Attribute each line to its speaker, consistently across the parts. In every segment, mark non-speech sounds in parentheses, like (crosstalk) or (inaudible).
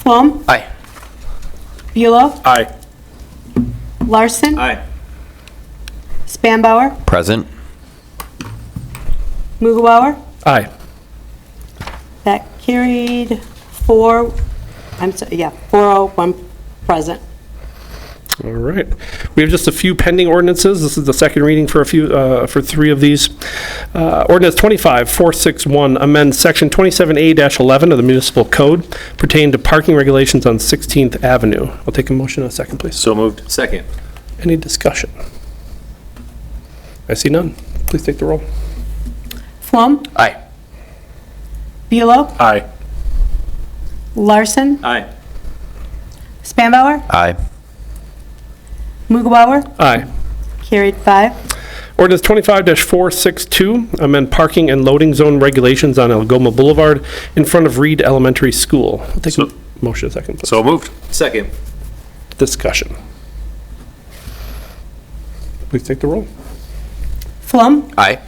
Speaker 1: Plum,
Speaker 2: Aye.
Speaker 1: Bulow,
Speaker 3: Aye.
Speaker 1: Larson,
Speaker 3: Aye.
Speaker 1: Spanbauer,
Speaker 4: Present.
Speaker 1: Mughawar.
Speaker 3: Aye.
Speaker 1: That carried four, I'm sorry, yeah, 401 present.
Speaker 3: All right. We have just a few pending ordinances. This is the second reading for a few, uh, for three of these. Uh, Ordinance 25461 amends Section 27A-11 of the Municipal Code pertaining to parking regulations on 16th Avenue. I'll take a motion in a second, please.
Speaker 2: So moved. Second.
Speaker 3: Any discussion? I see none. Please take the roll.
Speaker 1: Plum,
Speaker 2: Aye.
Speaker 1: Bulow,
Speaker 3: Aye.
Speaker 1: Larson,
Speaker 2: Aye.
Speaker 1: Spanbauer,
Speaker 4: Aye.
Speaker 1: Mughawar.
Speaker 3: Aye.
Speaker 1: Carried five.
Speaker 3: Ordinance 25-462, amend parking and loading zone regulations on Algoma Boulevard in front of Reed Elementary School. I'll take a
Speaker 2: So-
Speaker 3: motion in a second, please.
Speaker 2: So moved. Second.
Speaker 3: Discussion. Please take the roll.
Speaker 1: Plum,
Speaker 4: Aye.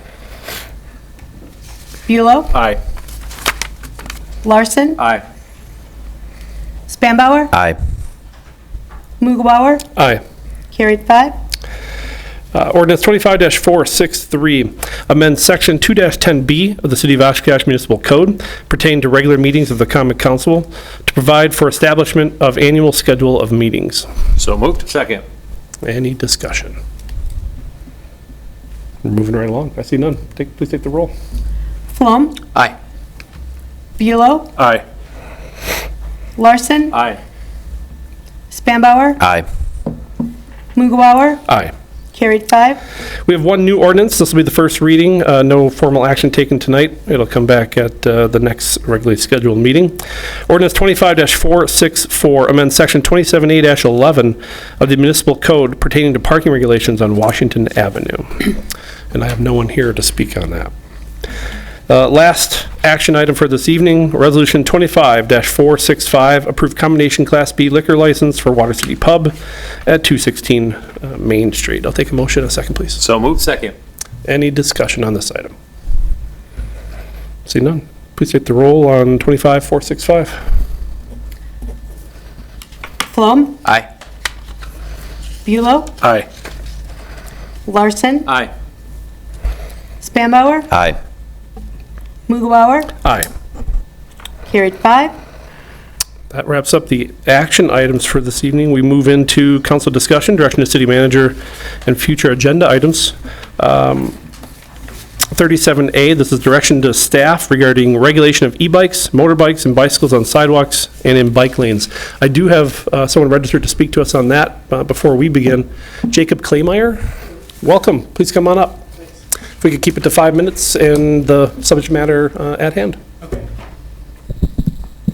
Speaker 1: Bulow,
Speaker 2: Aye.
Speaker 1: Larson,
Speaker 2: Aye.
Speaker 1: Spanbauer,
Speaker 4: Aye.
Speaker 1: Mughawar.
Speaker 3: Aye.
Speaker 1: Carried five.
Speaker 3: Uh, Ordinance 25-463, amend Section 2-10B of the City of Oshkosh Municipal Code pertaining to regular meetings of the Common Council to provide for establishment of annual schedule of meetings.
Speaker 2: So moved. Second.
Speaker 3: Any discussion? We're moving right along. I see none. Take, please take the roll.
Speaker 1: Plum,
Speaker 4: Aye.
Speaker 1: Bulow,
Speaker 2: Aye.
Speaker 1: Larson,
Speaker 2: Aye.
Speaker 1: Spanbauer,
Speaker 4: Aye.
Speaker 1: Mughawar.
Speaker 3: Aye.
Speaker 1: Carried five.
Speaker 3: We have one new ordinance. This will be the first reading. Uh, No formal action taken tonight. It'll come back at uh, the next regularly scheduled meeting. Ordinance 25-464, amend Section 27A-11 of the Municipal Code pertaining to parking regulations on Washington Avenue. (clears throat) And I have no one here to speak on that. Uh, Last action item for this evening, Resolution 25-465, approve combination Class B liquor license for Water City Pub at 216 uh, Main Street. I'll take a motion in a second, please.
Speaker 2: So moved. Second.
Speaker 3: Any discussion on this item? See none. Please take the roll on 25-465.
Speaker 1: Plum,
Speaker 4: Aye.
Speaker 1: Bulow,
Speaker 3: Aye.
Speaker 1: Larson,
Speaker 2: Aye.
Speaker 1: Spanbauer,
Speaker 4: Aye.
Speaker 1: Mughawar.
Speaker 3: Aye.
Speaker 1: Carried five.
Speaker 3: That wraps up the action items for this evening. We move into council discussion, direction to city manager, and future agenda items. Um, 37A, this is direction to staff regarding regulation of e-bikes, motorbikes, and bicycles on sidewalks and in bike lanes. I do have uh, someone registered to speak to us on that uh, before we begin. Jacob Claymire, welcome. Please come on up. If we could keep it to five minutes and the subject matter uh, at hand.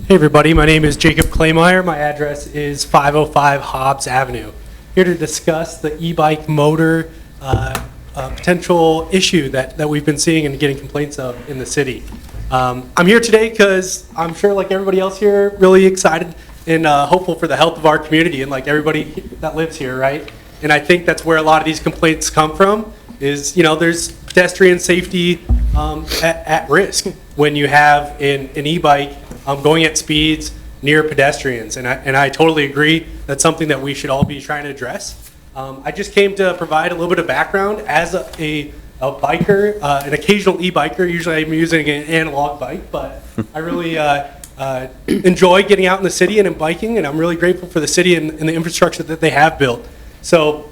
Speaker 5: Hey, everybody, my name is Jacob Claymire. My address is 505 Hobbs Avenue. Here to discuss the e-bike motor uh, uh, potential issue that that we've been seeing and getting complaints of in the city. Um, I'm here today because I'm sure, like everybody else here, really excited and uh, hopeful for the health of our community and like everybody that lives here, right? And I think that's where a lot of these complaints come from, is, you know, there's pedestrian safety um, at at risk when you have an an e-bike um, going at speeds near pedestrians. And I and I totally agree, that's something that we should all be trying to address. Um, I just came to provide a little bit of background as a, a, a biker, uh, an occasional e-biker. Usually I'm using an analog bike, but I really uh, uh, enjoy getting out in the city and in biking, and I'm really grateful for the city and, and the infrastructure that they have built. So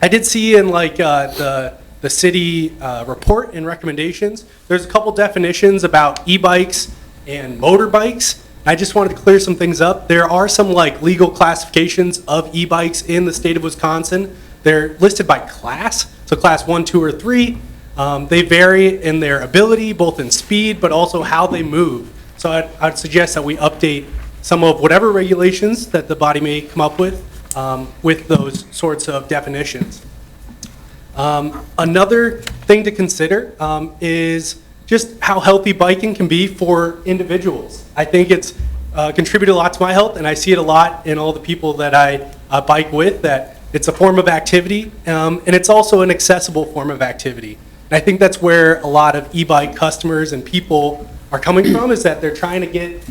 Speaker 5: I did see in like uh, the the city uh, report and recommendations. There's a couple definitions about e-bikes and motorbikes. I just wanted to clear some things up. There are some like legal classifications of e-bikes in the state of Wisconsin. They're listed by class, so class one, two, or three. Um, they vary in their ability, both in speed, but also how they move. So I'd, I'd suggest that we update some of whatever regulations that the body may come up with um, with those sorts of definitions. Um, Another thing to consider um, is just how healthy biking can be for individuals. I think it's uh, contributed a lot to my health, and I see it a lot in all the people that I uh, bike with, that it's a form of activity, um, and it's also an accessible form of activity. And I think that's where a lot of e-bike customers and people are coming from, is that they're trying to get